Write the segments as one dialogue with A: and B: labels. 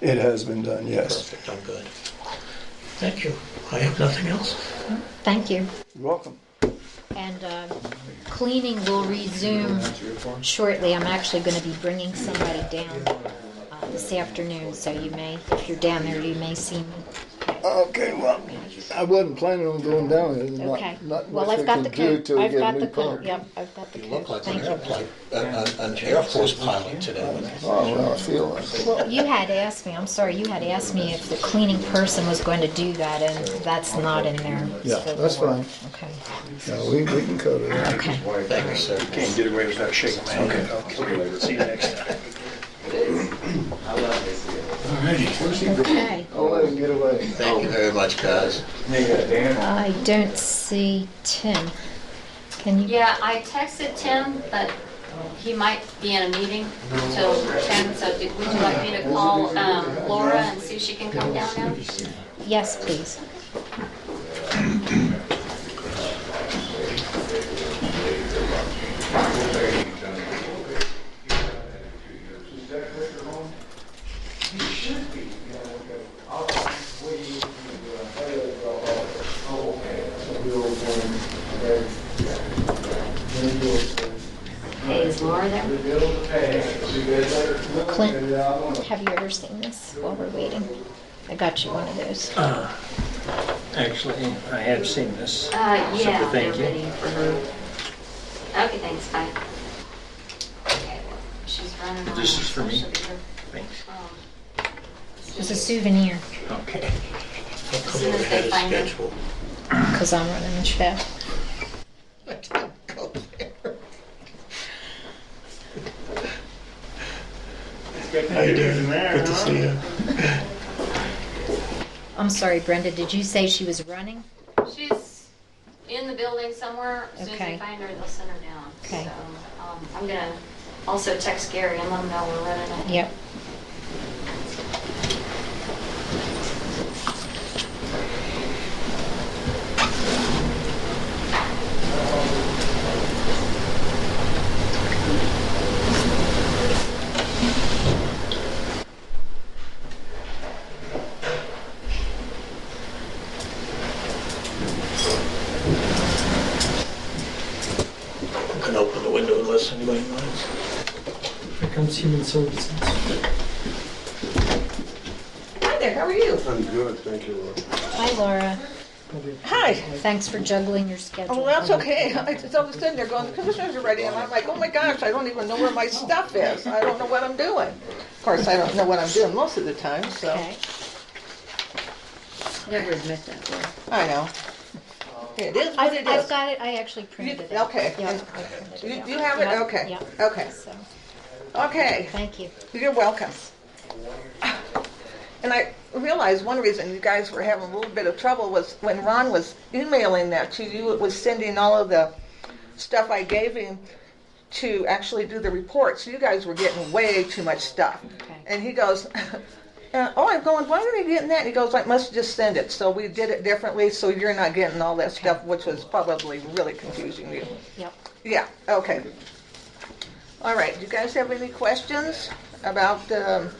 A: It has been done, yes.
B: Perfect, I'm good. Thank you. I have nothing else.
C: Thank you.
A: You're welcome.
C: And uh, cleaning will resume shortly. I'm actually going to be bringing somebody down uh, this afternoon, so you may, if you're down there, you may see me.
D: Okay, well, I wasn't planning on going down there. There's not-
C: Okay.
D: not
C: Well,
D: much
C: I've
D: I
C: got
D: can
C: the
D: do
C: coat.
D: till we
C: I've
D: get a
C: got
D: new
C: the coat.
D: pump.
C: Yep, I've got the
B: You look
C: coat.
B: like an
C: Thank you.
B: airplane, an, an- an Air Force pilot today.
D: Oh, well, I feel like it.
C: Well, you had asked me, I'm sorry, you had asked me if the cleaning person was going to do that, and that's not in there.
D: Yeah,
C: So-
D: that's fine.
C: Okay,
D: No, we, we can cover that.
C: okay.
B: Thank you, sir.
E: Can't get away without shaking my hand. Okay. See you next time.
C: Okay.
D: I'll let him get away.
B: Thank you very much, guys.
C: I don't see Tim. Can you,
F: Yeah, I texted Tim, but he might be in a meeting till 10, so did- would you like me to call um, Laura and see if she can come down now?
C: yes, please.
F: Hey, is Laura there?
C: Clint, have you ever seen this while we're waiting? I got you one of those.
G: Actually, I have seen this.
F: Uh, yeah,
G: Super,
F: they're
G: thank you.
F: ready for her. Okay, thanks, bye. Okay, well, She's running on.
G: This is for me? Thanks.
C: It's a souvenir,
G: Okay.
B: I'll come
F: Soon as
B: over ahead
F: they
B: of
F: find it.
B: schedule.
C: because I'm running the show.
B: I didn't go there. How you doing? Good to see you.
C: I'm sorry, Brenda, did you say she was running?
F: She's in the building somewhere. As soon as
C: Okay.
F: they find her, they'll send her down.
C: Okay.
F: So, um, I'm gonna also text Gary and let him know we're running it.
C: Yep.
B: I can open the window unless anybody minds.
G: Here comes human services.
H: Hi there, how are you?
E: I'm good, thank you, Lord.
C: Hi, Laura.
H: Hi.
C: Thanks for juggling your schedule.
H: Oh, that's okay. I- It's all of a sudden they're going, the commissioners are ready, and I'm like, oh my gosh, I don't even know where my stuff is. I don't know what I'm doing. Of course, I don't know what I'm doing most of the time, so,
C: Okay.
F: Never admit that, Laura.
H: I know. It is what
C: I've,
H: it
C: I've
H: is.
C: got it, I actually printed it.
H: okay.
C: Yeah, I printed
H: You
C: it out.
H: you have it?
C: Yep,
H: Okay,
C: yep.
H: okay,
C: So,
H: okay.
C: thank you.
H: You're welcome. And I realized one reason you guys were having a little bit of trouble was when Ron was emailing that to you, it was sending all of the stuff I gave him to actually do the report. So you guys were getting way too much stuff.
C: Okay.
H: And he goes, uh, oh, I'm going, why are they getting that? And he goes, I must just send it. So we did it differently, so you're not getting all that stuff, which was probably really confusing you.
C: Yep.
H: Yeah, okay. All right, do you guys have any questions about the,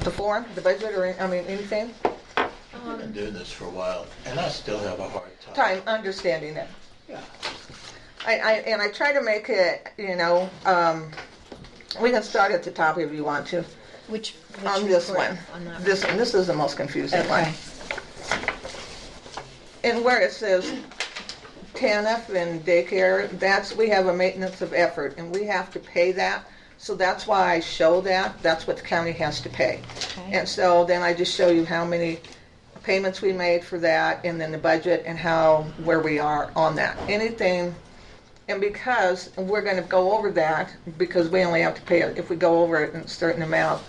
H: the form, the budget, or, I mean, anything?
B: I've
F: Um,
B: been doing this for a while, and I still have a hard time.
H: Time, understanding it.
B: Yeah.
H: I, I, and I try to make it, you know, um, we can start at the top if you want to,
C: Which, which
H: on this
C: report?
H: one.
C: On that
H: This, one. this is the most confusing one.
C: Okay.
H: And where it says TANF and daycare, that's, we have a maintenance of effort, and we have to pay that. So that's why I show that, that's what the county has to pay.
C: Okay.
H: And so then I just show you how many payments we made for that, and then the budget, and how, where we are on that. Anything, and because, and we're gonna go over that, because we only have to pay it, if we go over it in a certain amount,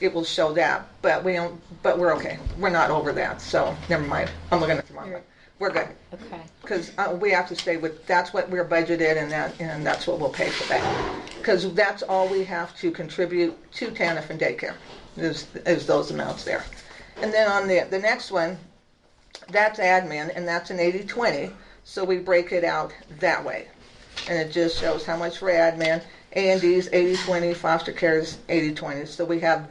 H: it will show that, but we don't, but we're okay, we're not over that, so, never mind, I'm looking at the wrong one. We're good.
C: Okay,
H: Because we have to stay with, that's what we're budgeted and that, and that's what we'll pay for that. Because that's all we have to contribute to TANF and daycare, is, is those amounts there. And then on the, the next one, that's admin and that's an 80/20, so we break it out that way. And it just shows how much for admin, A and D's 80/20, foster care is 80/20, so we have